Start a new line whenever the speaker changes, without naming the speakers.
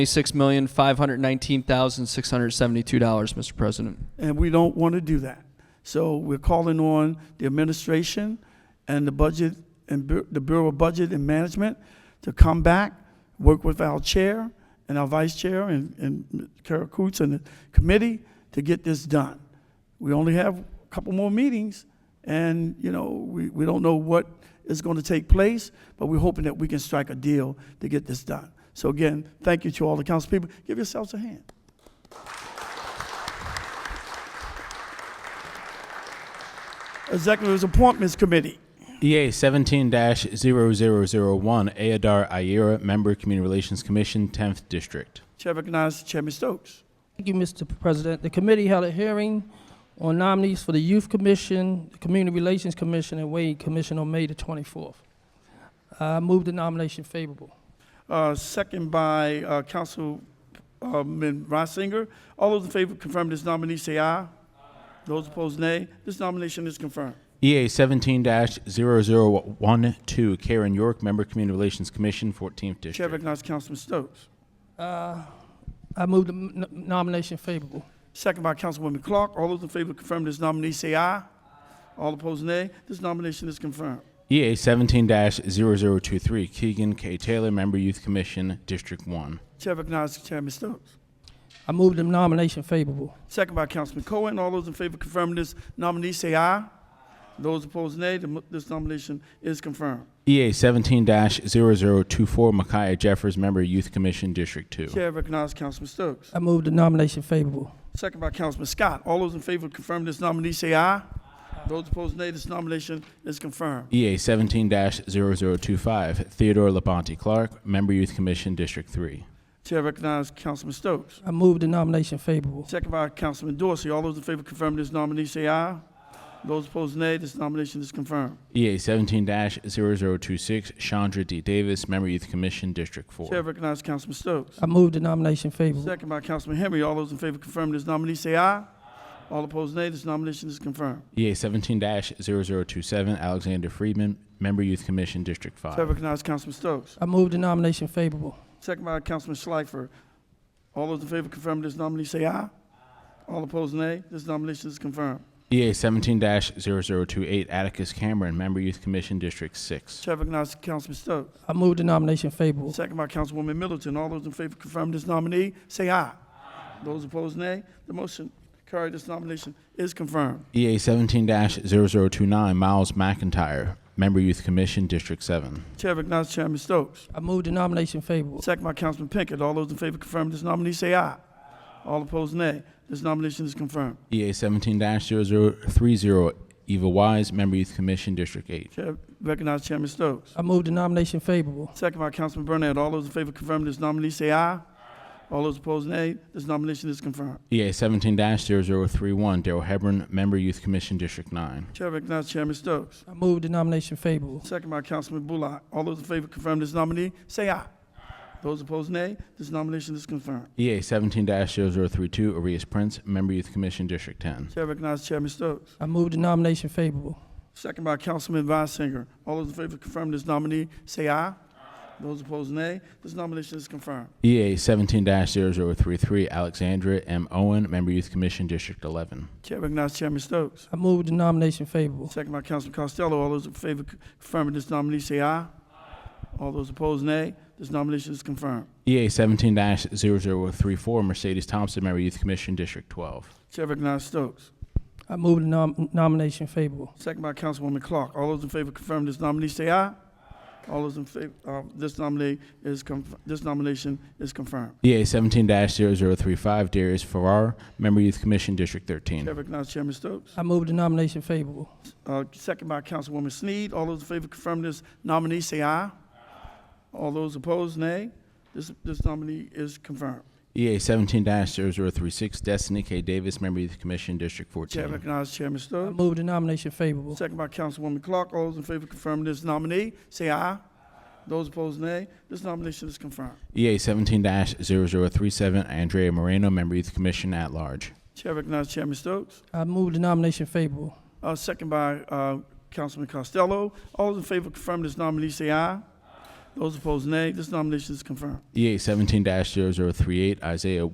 Twenty-six million five hundred nineteen thousand six hundred seventy-two dollars, Mr. President.
and we don't want to do that. So we're calling on the administration and the budget and Bu- the Bureau of Budget and Management to come back, work with our chair and our vice chair and, and Kara Coots and the committee to get this done. We only have a couple more meetings and, you know, we, we don't know what is going to take place, but we're hoping that we can strike a deal to get this done. So again, thank you to all the council people. Give yourselves a hand. Executive's Appointments Committee.
EA 17 0001, Aadar Ayera, Member Community Relations Commission, 10th District.
Chair recognizes Chairman Stokes.
Thank you, Mr. President. The committee held a hearing on nominees for the Youth Commission, the Community Relations Commission, and Wade Commission on May the 24th. I move the nomination favorable.
Uh, Second by uh, Councilman Reisinger. All those in favor of confirming this nominee, say aye. Those opposed, nay. This nomination is confirmed.
EA 17 0012, Karen York, Member Community Relations Commission, 14th
Chair
District.
recognizes Councilman Stokes.
Uh, I move the n- nomination favorable.
Second by Councilwoman Clark. All those in favor of confirming this nominee, say aye. All opposed, nay. This nomination is confirmed.
EA 17 0023, Keegan K. Taylor, Member Youth Commission, District 1.
Chair recognizes Chairman Stokes.
I move the nomination favorable.
Second by Councilman Cohen. All those in favor of confirming this nominee, say aye. Those opposed, nay. The mo- This nomination is confirmed.
EA 17 0024, Micaiah Jeffers, Member Youth Commission, District 2.
Chair recognizes Councilman Stokes.
I move the nomination favorable.
Second by Councilman Scott. All those in favor of confirming this nominee, say aye. Those opposed, nay. This nomination is confirmed.
EA 17 0025, Theodore Labonte Clark, Member Youth Commission, District 3.
Chair recognizes Councilman Stokes.
I move the nomination favorable.
Second by Councilman Dorsey. All those in favor of confirming this nominee, say aye. Those opposed, nay. This nomination is confirmed.
EA 17 0026, Chandra D. Davis, Member Youth Commission, District
Chair
4.
recognizes Councilman Stokes.
I move the nomination favorable.
Second by Councilman Henry. All those in favor of confirming this nominee, say aye. All opposed, nay. This nomination is confirmed.
EA 17 0027, Alexander Friedman, Member Youth Commission, District
Chair
5.
recognizes Councilman Stokes.
I move the nomination favorable.
Second by Councilman Schleifer. All those in favor of confirming this nominee, say aye. All opposed, nay. This nomination is confirmed.
EA 17 0028, Atticus Cameron, Member Youth Commission, District 6.
Chair recognizes Councilman Stokes.
I move the nomination favorable.
Second by Councilwoman Middleton. All those in favor confirm this nominee, say aye. Those opposed, nay. The motion carried. This nomination is confirmed.
EA 17 0029, Miles McIntyre, Member Youth Commission, District 7.
Chair recognizes Chairman Stokes.
I move the nomination favorable.
Second by Councilman Pinkett. All those in favor confirm this nominee, say aye. All opposed, nay. This nomination is confirmed.
EA 17 0030, Eva Wise, Member Youth Commission, District 8.
Chair recognizes Chairman Stokes.
I move the nomination favorable.
Second by Councilman Burnett. All those in favor confirm this nominee, say aye. All those opposed, nay. This nomination is confirmed.
EA 17 0031, Daryl Hebron, Member Youth Commission, District 9.
Chair recognizes Chairman Stokes.
I move the nomination favorable.
Second by Councilman Bullock. All those in favor confirm this nominee, say aye. Those opposed, nay. This nomination is confirmed.
EA 17 0032, Arias Prince, Member Youth Commission, District 10.
Chair recognizes Chairman Stokes.
I move the nomination favorable.
Second by Councilman Reisinger. All those in favor confirm this nominee, say aye. Those opposed, nay. This nomination is confirmed.
EA 17 0033, Alexandra M. Owen, Member Youth Commission, District 11.
Chair recognizes Chairman Stokes.
I move the nomination favorable.
Second by Councilman Costello. All those in favor confirming this nominee, say aye. All those opposed, nay. This nomination is confirmed.
EA 17 0034, Mercedes Thompson, Member Youth Commission, District 12.
Chair recognizes Stokes.
I move the nom- nomination favorable.
Second by Councilwoman Clark. All those in favor confirm this nominee, say aye. All those in favor, uh, this nominee is, conf- this nomination is confirmed.
EA 17 0035, Darius Farrar, Member Youth Commission, District
Chair
13.
recognizes Chairman Stokes.
I move the nomination favorable.
Uh, second by Councilwoman Sneed. All those in favor confirm this nominee, say aye. All those opposed, nay. This, this nominee is confirmed.
EA 17 0036, Destiny K. Davis, Member Youth Commission, District
Chair
14.
recognizes Chairman
I
Stokes.
move the nomination favorable.
Second by Councilwoman Clark. All those in favor confirm this nominee, say aye. Those opposed, nay. This nomination is confirmed.
EA 17 0037, Andrea Moreno, Member Youth Commission at Large.
Chair recognizes Chairman Stokes.
I move the nomination favorable.
Uh, second by uh, Councilman Costello. All those in favor of confirming this nominee, say aye. Those opposed, nay. This nomination is confirmed.
EA 17 0038, Isaiah